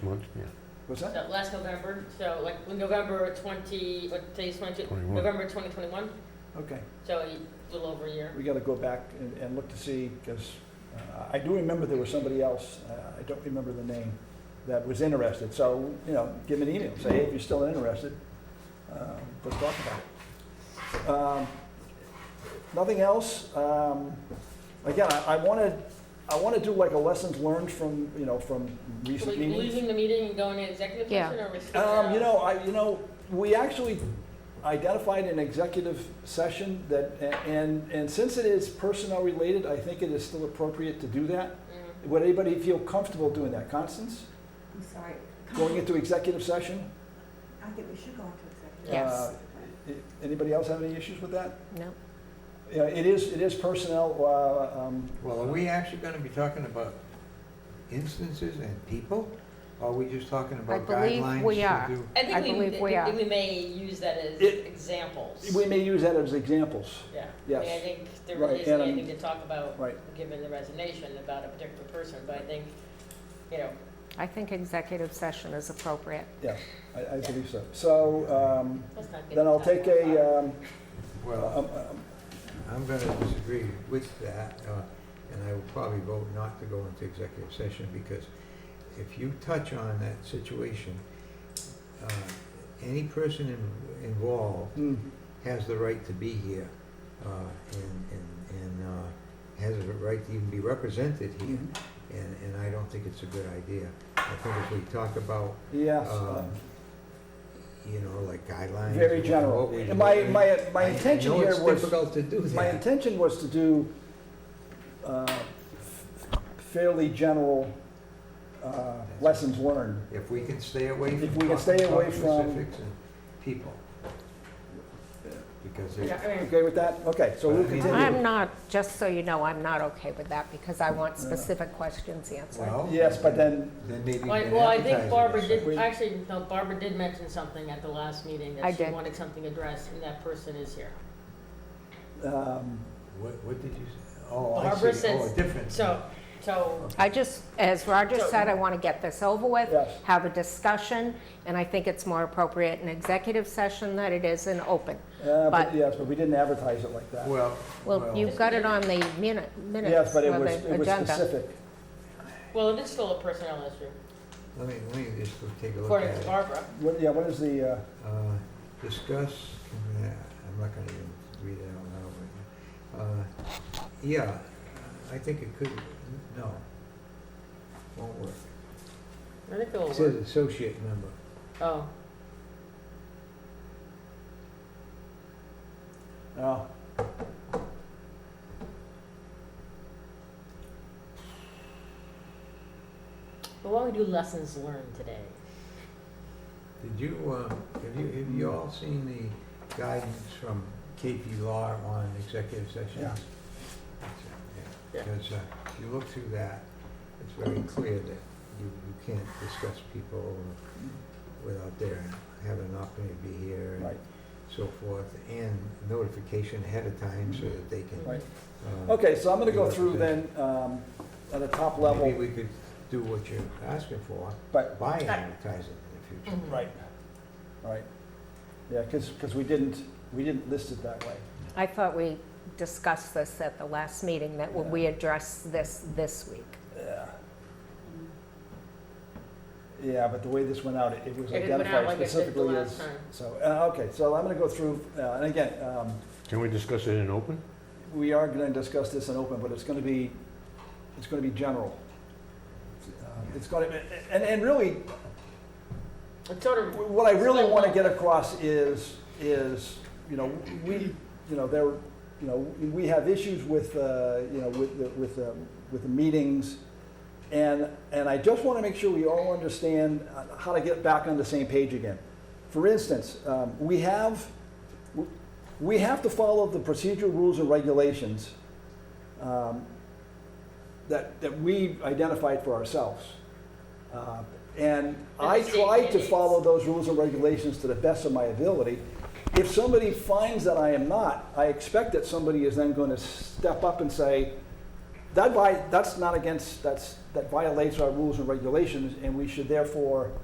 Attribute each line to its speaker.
Speaker 1: Twenty-one, yeah,
Speaker 2: What's that?
Speaker 3: So last November, so like November twenty, what today's twenty-two?
Speaker 1: 21.
Speaker 3: November twenty twenty-one,
Speaker 2: Okay,
Speaker 3: so a little over a year.
Speaker 2: we gotta go back and, and look to see, because I do remember there was somebody else, uh, I don't remember the name, that was interested, so, you know, give me an email, say, hey, if you're still interested, um, let's talk about it. Um, Nothing else, um, again, I, I wanna, I wanna do like a lessons learned from, you know, from
Speaker 3: So
Speaker 2: recent
Speaker 3: we
Speaker 2: meetings.
Speaker 3: leaving the meeting and going into executive
Speaker 4: Yeah.
Speaker 3: session, or we're sticking
Speaker 2: Um,
Speaker 3: around?
Speaker 2: you know, I, you know, we actually identified an executive session that, and, and since it is personnel related, I think it is still appropriate to do that.
Speaker 3: Mm.
Speaker 2: Would anybody feel comfortable doing that? Constance,
Speaker 5: I'm sorry.
Speaker 2: going into executive session?
Speaker 5: I think we should go into executive.
Speaker 4: Yes.
Speaker 2: Uh, i- Anybody else have any issues with that?
Speaker 4: No.
Speaker 2: Yeah, it is, it is personnel, uh, um,
Speaker 6: Well, are we actually gonna be talking about instances and people? Or are we just talking about
Speaker 4: believe
Speaker 6: guidelines
Speaker 4: we
Speaker 6: to
Speaker 4: are.
Speaker 6: do?
Speaker 3: I think
Speaker 4: I
Speaker 3: we, I
Speaker 4: believe we
Speaker 3: think
Speaker 4: are.
Speaker 3: we may use that as
Speaker 2: It-
Speaker 3: examples.
Speaker 2: we may use that as examples,
Speaker 3: Yeah. I mean, I
Speaker 2: yes.
Speaker 3: think there
Speaker 2: Right,
Speaker 3: really isn't
Speaker 2: and, um,
Speaker 3: anything to talk about,
Speaker 2: Right,
Speaker 3: given the resignation, about a particular person, but I think, you know,
Speaker 4: I think executive session is appropriate.
Speaker 2: I, I believe so. So, um,
Speaker 3: let's not get.
Speaker 2: then I'll
Speaker 3: into
Speaker 2: take
Speaker 3: that one.
Speaker 2: a, um,
Speaker 6: Well,
Speaker 2: um, um,
Speaker 6: I'm gonna disagree with that, uh, and I will probably vote not to go into executive session because if you touch on that situation, uh, any person in- involved
Speaker 2: mm,
Speaker 6: has the right to be here, uh, and, and, and, uh, has a right to even be represented here.
Speaker 2: mhm.
Speaker 6: And, and I don't think it's a good idea. I think if we talk about
Speaker 2: yes.
Speaker 6: um, you know, like guidelines.
Speaker 2: Very
Speaker 6: and
Speaker 2: general.
Speaker 6: what we do.
Speaker 2: My, my, my
Speaker 6: I-
Speaker 2: intention
Speaker 6: I know
Speaker 2: here
Speaker 6: it's
Speaker 2: was,
Speaker 6: difficult to do
Speaker 2: my
Speaker 6: that.
Speaker 2: intention was to do uh, fairly general uh, lessons learned.
Speaker 6: If we can stay away from.
Speaker 2: If we can
Speaker 6: talking
Speaker 2: stay away
Speaker 6: about
Speaker 2: from-
Speaker 6: Specifics and people. Because
Speaker 3: Yeah,
Speaker 6: it,
Speaker 3: I mean,
Speaker 2: Okay with that? Okay, so we'll
Speaker 4: I'm
Speaker 2: continue.
Speaker 4: not, just so you know, I'm not okay with that because I want specific questions answered.
Speaker 6: well.
Speaker 2: Yes, but then,
Speaker 6: Then maybe. you
Speaker 3: Well, I-
Speaker 6: can
Speaker 3: well, I
Speaker 6: advertise it
Speaker 3: think Barbara
Speaker 6: as
Speaker 3: did,
Speaker 2: We-
Speaker 3: actually, no, Barbara did mention something at the last meeting,
Speaker 4: I
Speaker 3: that she
Speaker 4: did.
Speaker 3: wanted something addressed, and that person is here.
Speaker 2: um,
Speaker 6: such. What, what did you say? Oh, I
Speaker 3: Barbara
Speaker 6: see. Oh,
Speaker 3: says-
Speaker 6: a different.
Speaker 3: So, so,
Speaker 4: I just, as Roger
Speaker 3: So-
Speaker 4: said, I want to get this over with,
Speaker 2: Yes.
Speaker 4: have a discussion, and I think it's more appropriate in executive session than it is in open.
Speaker 2: uh, but
Speaker 4: But-
Speaker 2: yes, but we didn't advertise it like that.
Speaker 6: Well.
Speaker 4: Well, you've got it on the minute,
Speaker 2: Yes,
Speaker 4: minutes of
Speaker 2: but it was,
Speaker 4: the
Speaker 2: it was
Speaker 4: agenda.
Speaker 2: specific.
Speaker 3: well, it is still a personnel issue,
Speaker 6: Let me, let me just take a look at
Speaker 3: according to
Speaker 6: it.
Speaker 3: Barbara.
Speaker 2: What, yeah, what is the, uh,
Speaker 6: Uh, Discuss, uh, I'm not gonna even read it out loud right now. Uh, Yeah, I think it could, no, won't work.
Speaker 3: I think it'll
Speaker 6: It says
Speaker 3: work.
Speaker 6: associate member.
Speaker 3: Oh,
Speaker 2: oh,
Speaker 3: but why don't we do lessons learned today?
Speaker 6: Did you, uh, have you, have you all seen the guidance from KP Law on executive
Speaker 2: Yeah.
Speaker 6: sessions?
Speaker 3: Yeah.
Speaker 6: Because uh, if you look through that, it's very clear that you, you can't discuss people without their having an opportunity to be here. and
Speaker 2: right,
Speaker 6: so forth, and notification ahead of time so that they can.
Speaker 2: right.
Speaker 6: uh,
Speaker 2: Okay, so I'm gonna go through then, um, at a top
Speaker 6: Maybe
Speaker 2: level,
Speaker 6: we could do what you're asking for
Speaker 2: but,
Speaker 6: by advertising in the
Speaker 3: Mm-hmm.
Speaker 6: future.
Speaker 2: right, right. Yeah, because, because we didn't, we didn't list it that way.
Speaker 4: I thought we discussed this at the last meeting, that we address this this week.
Speaker 2: Yeah. Yeah, but the way this went out, it- it was
Speaker 3: It went out
Speaker 2: identified
Speaker 3: like it did the
Speaker 2: specifically
Speaker 3: last
Speaker 2: as,
Speaker 3: time.
Speaker 2: so, uh, okay, so I'm gonna go through, uh, and again, um,
Speaker 1: can we discuss it in open?
Speaker 2: we are gonna discuss this in open, but it's gonna be, it's gonna be general. Uh, It's gonna, and, and really,
Speaker 3: It's sort of,
Speaker 2: what I really want to get across is, is, you know, we, you know, there, you know, we have issues with, uh, you know, with, the- with, the- with the meetings. And, and I just want to make sure we all understand uh, how to get back on the same page again. For instance, um, we have, we have to follow the procedural rules and regulations um, that, that we identified for ourselves. Uh, And
Speaker 3: And
Speaker 2: I
Speaker 3: the state
Speaker 2: try to
Speaker 3: mandates.
Speaker 2: follow those rules and regulations to the best of my ability. If somebody finds that I am not, I expect that somebody is then going to step up and say, that vi, that's not against, that's, that violates our rules and regulations, and we should therefore